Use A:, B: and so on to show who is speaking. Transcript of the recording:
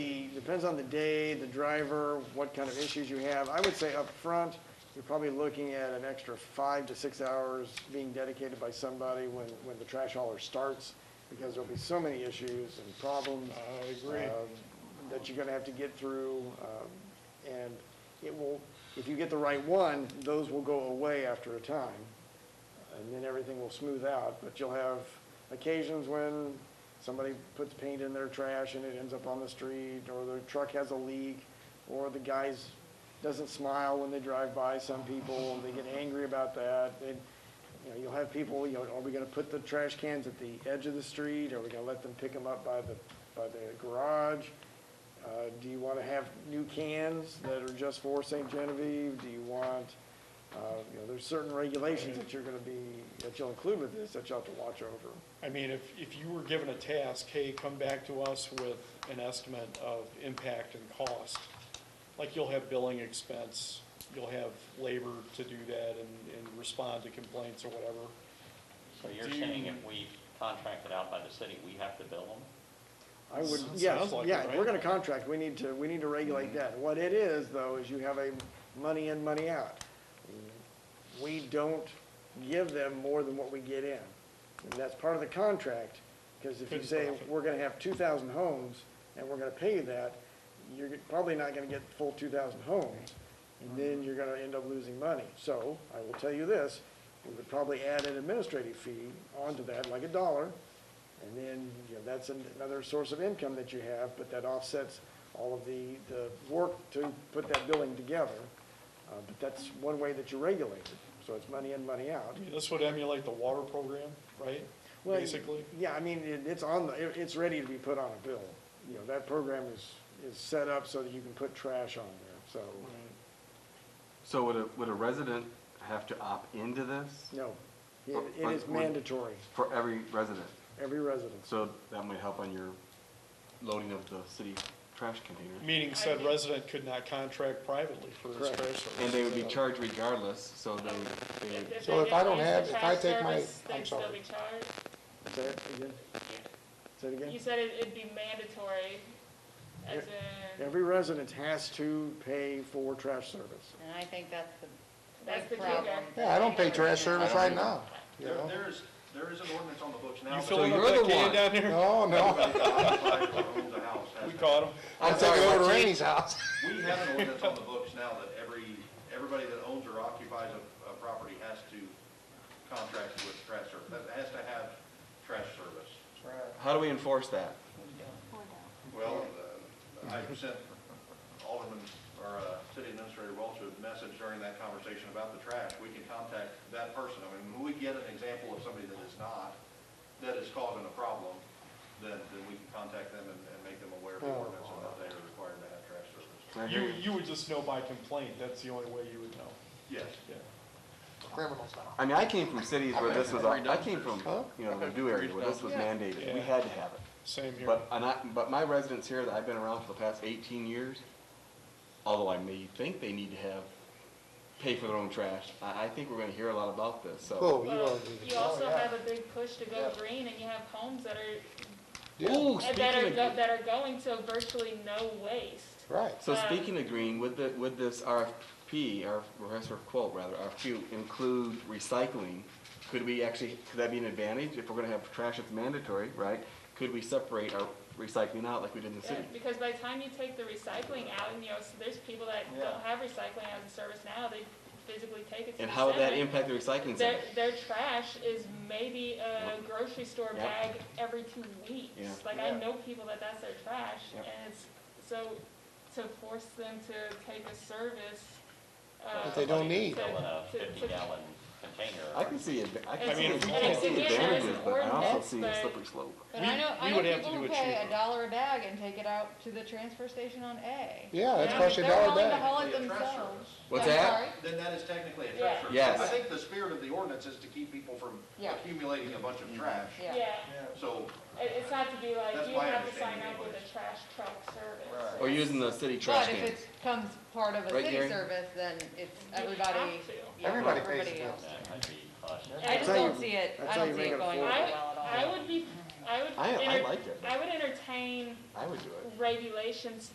A: Depends on the day, the driver, what kind of issues you have. I would say up front, you're probably looking at an extra five to six hours being dedicated by somebody when, when the trash hauler starts, because there'll be so many issues and problems.
B: I agree.
A: um, That you're gonna have to get through, um, and it will, if you get the right one, those will go away after a time and then everything will smooth out, but you'll have occasions when somebody puts paint in their trash and it ends up on the street, or their truck has a leak, or the guy's, doesn't smile when they drive by, some people, and they get angry about that, and, you know, you'll have people, you know, are we gonna put the trash cans at the edge of the street, are we gonna let them pick them up by the, by the garage? Uh, do you wanna have new cans that are just for St. Genevieve, do you want, uh, you know, there's certain regulations that you're gonna be, that you'll include with this, that you'll have to watch over.
B: I mean, if, if you were given a task, hey, come back to us with an estimate of impact and cost, like you'll have billing expense, you'll have labor to do that and, and respond to complaints or whatever.
C: So you're
B: Do
C: saying
B: you-
C: if we contract it out by the city, we have to bill them?
A: I would,
B: Sounds
A: yes,
B: like it,
A: yeah, if we're
B: right? Mm-hmm.
A: gonna contract, we need to, we need to regulate that. What it is, though, is you have a money in, money out. We don't give them more than what we get in. And that's part of the contract, because if you
B: Good
A: say,
B: profit.
A: we're gonna have two thousand homes, and we're gonna pay you that, you're probably not gonna get full two thousand homes, and then you're gonna end up losing money. So, I will tell you this, we would probably add an administrative fee onto that, like a dollar, and then, you know, that's an- another source of income that you have, but that offsets all of the, the work to put that billing together. Uh, But that's one way that you regulate it, so it's money in, money out.
B: I mean, This would emulate the water program, right?
A: Well,
B: Basically,
A: Yeah, I mean, it, it's on the, it, it's ready to be put on a bill. You know, that program is, is set up so that you can put trash on there, so,
D: So would a, would a resident have to opt into this
A: no. It, it is mandatory,
D: for every resident?
A: every residence.
D: So that might help on your loading of the city trash container.
B: meaning said resident could not contract privately for his
A: Correct.
B: trash service.
D: And they would be charged regardless, so they would, they would,
E: If
F: So
E: they
F: if I
E: don't
F: don't
E: use the
F: have- if I
E: trash
F: take my-
E: service,
F: I'm
E: they'd still
F: sorry.
E: be charged?
A: Say it again, say it
E: You
A: again.
E: said it- it'd be mandatory, as in,
A: Every residence has to pay for trash service.
G: And I think that's the
E: That's the
G: big problem.
E: kicker.
F: Yeah, I don't pay trash service right now, you
H: There,
F: know?
H: there is, there is an ordinance on the books now.
B: You
H: that-
B: filling up
D: you're
B: that
D: the
B: can
D: one.
B: down there?
F: No, no,
H: Owns a house, has
B: We
H: to-
B: caught him.
F: I'm taking it over to Rainey's house.
H: We have an ordinance on the books now that every, everybody that owns or occupies a, a property has to contract with trash service, that has to have trash service.
D: how do we enforce that?
H: Well, uh, I sent Alderman, or uh, City Administrator Welch a message during that conversation about the trash. We can contact that person. I mean, when we get an example of somebody that is not, that is causing a problem, then, then we can contact them and, and make them aware of the ordinance and that they are required to have trash service.
D: I hear
B: You,
D: you.
B: you would just know by complaint, that's the only way you would know,
H: Yes.
B: yeah.
F: Criminals now.
D: I mean, I came from cities where this was, I came from,
F: Huh?
D: you know, the Purdue area where this was mandated. We
B: Yeah.
D: had to have it.
B: Same here.
D: But, and I, but my residents here that I've been around for the past eighteen years, although I may think they need to have, pay for their own trash, I, I think we're gonna hear a lot about this, so.
F: Cool, you
E: Well,
F: already did it.
E: you
F: Oh,
E: also
F: yeah.
E: have a big push to go
F: Yeah.
E: green, and you have homes that are,
F: Yeah,
D: Ooh,
E: that are,
D: speaking
E: go-
D: of,
E: that are going to virtually no waste.
F: right.
D: so speaking of green, would the, would this RFP, or request for quote rather, RFQ include recycling? Could we actually, could that be an advantage if we're gonna have trash that's mandatory, right? Could we separate our recycling out like we did in the
E: Yeah,
D: city?
E: Because by the time you take the recycling out, and you know, so there's people that don't have recycling as a service now, they physically take it to the
D: And how would that
E: center.
D: impact the recycling
E: Their,
D: center?
E: their trash is maybe a grocery store
D: Yep.
E: bag every two weeks.
D: Yeah.
E: Like, I know people that that's their trash,
D: Yep.
E: and it's, so, to force them to take a service, uh.
F: That they don't need.
E: to-
C: Fill in a
E: to- to-
C: fifty gallon container.
D: I can see, adva- I
E: And
D: can see,
B: it's-
D: I can
B: it's-
D: see
B: again,
E: there's
D: advantages,
E: an
D: but I also
E: ordinance,
D: see a
E: but-
D: slippery slope.
G: But I
B: We-
G: know,
B: we
G: I know
B: would have to
G: people
B: do
G: who
B: it
G: pay
B: cheaper.
G: a dollar a bag and take it out to the transfer station on A.
F: Yeah, that's
E: Yeah,
F: costing a dollar a
G: They're willing to
F: day.
G: haul it
H: Technically a trash
G: themselves.
H: service.
D: What's
G: I'm
D: that?
G: sorry?
H: Then that is technically a
E: Yeah.
H: trash service.
D: Yes.
H: I think the spirit of the ordinance is to keep people from
G: Yeah.
H: accumulating a bunch of trash.
G: Yeah.
E: Yeah,
H: So,
E: it, it's not to be like,
H: That's
E: you
H: my
E: have to sign
H: understanding
E: up with
H: anyways.
E: a trash truck service.
D: Or Oh, using the city trash
G: But if
D: can.
G: it becomes part of a
D: Right, Gary?
G: city service, then it's
E: You
G: everybody.
E: have to.
G: yeah,
F: Everybody pays the
G: everybody
F: bill.
G: else.
C: That might be cautious.
G: I
A: That's
G: just
A: how
G: don't
A: you-
G: see it,
A: that's
G: I
A: how
G: don't
A: you
G: see
A: make
G: it
A: it
G: going over
E: I,
G: well at all.
E: I would be, I would.
D: I, I
E: enter-
D: like it.
E: I would entertain
D: I would do it.
E: regulations